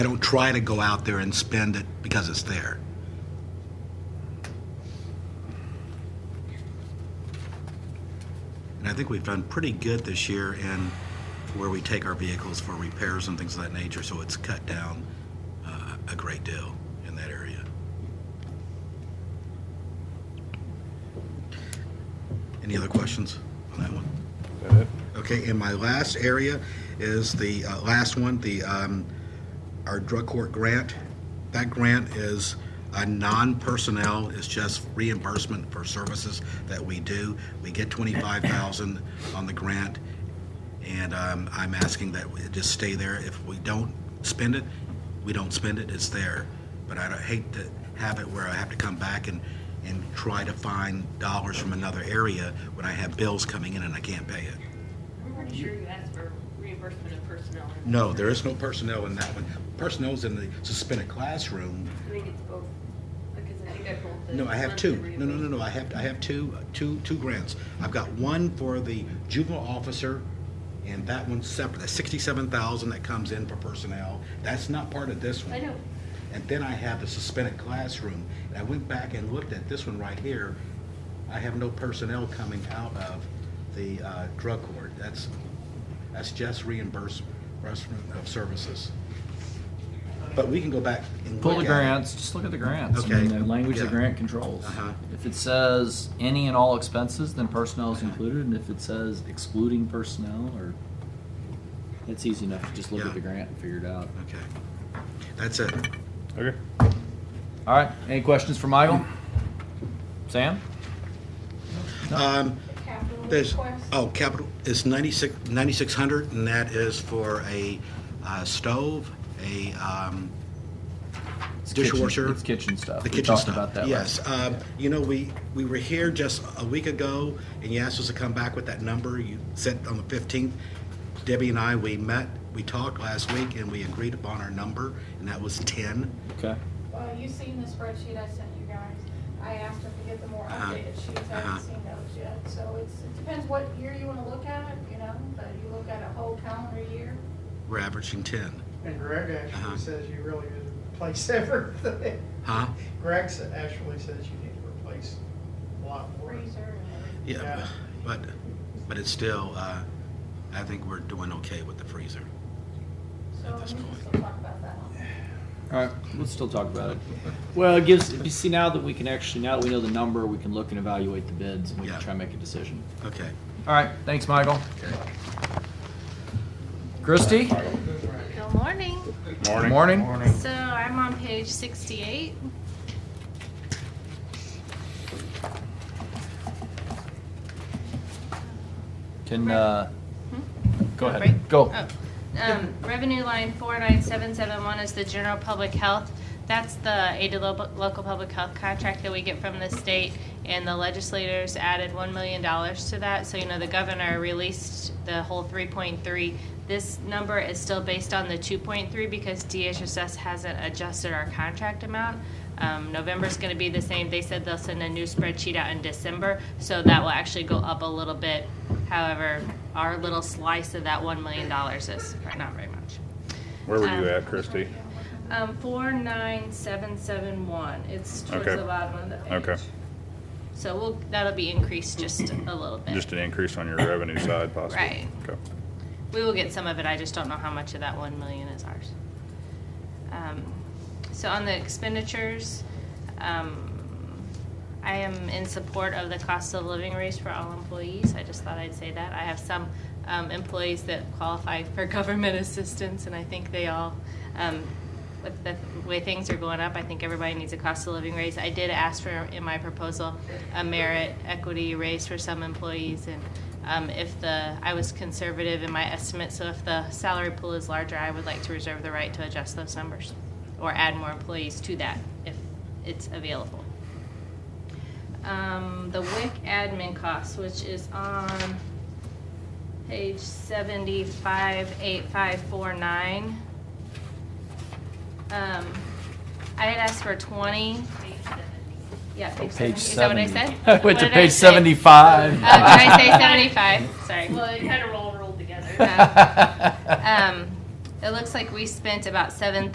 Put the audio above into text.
I don't try to go out there and spend it because it's there. And I think we've done pretty good this year in where we take our vehicles for repairs and things of that nature, so it's cut down uh, a great deal in that area. Any other questions on that one? Okay, and my last area is the uh, last one, the, um, our drug court grant. That grant is a non-personnel, it's just reimbursement for services that we do. We get twenty-five thousand on the grant, and um, I'm asking that it just stay there. If we don't spend it, we don't spend it, it's there. But I don't- hate to have it where I have to come back and, and try to find dollars from another area when I have bills coming in and I can't pay it. I'm pretty sure you asked for reimbursement of personnel. No, there is no personnel in that one. Personnel's in the suspended classroom. I think it's both, because I think I pulled the. No, I have two. No, no, no, no, I have, I have two, uh, two, two grants. I've got one for the juvenile officer, and that one's separate, that's sixty-seven thousand that comes in for personnel. That's not part of this one. I know. And then I have the suspended classroom, and I went back and looked at this one right here. I have no personnel coming out of the uh, drug court. That's, that's just reimbursement of services. But we can go back and Pull look the at it. grants. Just look at the grants. I Okay. mean, the language Yeah. the grant controls. Uh-huh. If it says any and all expenses, then personnel is included. And if it says excluding personnel, or it's easy enough to just look Yeah. at the grant and figure it out. Okay. That's it. Okay. All right. Any questions for Michael? Sam? Um, capital There's, request. oh, capital, it's 96 9,600, and that is for a uh, stove, a um, It's Dishwasher. Kitchen, it's kitchen stuff. the Uh, We kitchen talked stuff. about that. Yes, last- um, you know, we, we were here just a week ago, and you asked us to come back with that number. You said on the 15th, Debbie and I, we met, we talked last week, and we agreed upon our number, and that was 10. Okay. Well, you've Uh, seen the spreadsheet I sent you guys. I asked them to get the more Uh-huh. updated sheets. I Uh-huh. haven't seen those yet. So it's, it depends what year you wanna look at it, you know, but you look at a whole calendar year. We're averaging 10. And Greg Uh-huh. actually says you really need to replace everything. Huh? Greg sa- actually says you need to replace a lot more. Freezer and everything. Yeah, Yeah. but, but it's still, uh, I think we're doing okay with the freezer. So At this we can point. still talk about that one. All right. We'll still talk about it. Well, it gives. You see, now that we can actually, now that we know the number, we can look and evaluate the bids, and we Yeah. can try and make a decision. Okay. All right. Thanks, Michael. Christy? Good morning. Good morning. So I'm on page 68. Can, uh, go Wanna ahead. break? Go. Hmm? Oh. Um, Revenue line 49771 is the general public health. That's the aid to lo- local public health contract that we get from the state, and the legislators added $1 million to that. So, you know, the governor released the whole 3.3. This number is still based on the 2.3 because DHSS hasn't adjusted our contract amount. Um, November's gonna be the same. They said they'll send a new spreadsheet out in December, so that will actually go up a little bit. However, our little slice of that one million dollars is not very much. Where were you Um, at, Christy? Um, four nine seven seven one. It's towards Okay. the bottom of the page. Okay. So we'll, that'll be increased just a little bit. Just an increase on your revenue side possibly? Right. Okay. We will get some of it, I just don't know how much of that one million is ours. Um, So on the expenditures, um, I am in support of the cost of living raise for all employees, I just thought I'd say that. I have some um, employees that qualify for government assistance, and I think they all, um, with the way things are going up, I think everybody needs a cost of living raise. I did ask for, in my proposal, a merit equity raise for some employees, and um, if the, I was conservative in my estimate, so if the salary pool is larger, I would like to reserve the right to adjust those numbers or add more employees to that if it's available. Um, the WIC admin costs, which is on page seventy-five, eight, five, four, nine. Um, I had asked for twenty. Yeah, Oh, Page page seventy. Is that what 70. I said? I went What to did I page say? 75. Oh, did I say seventy-five? Um, Sorry. Well, it kind of all rolled together. Oh. Uh, Um, it looks like we spent about seven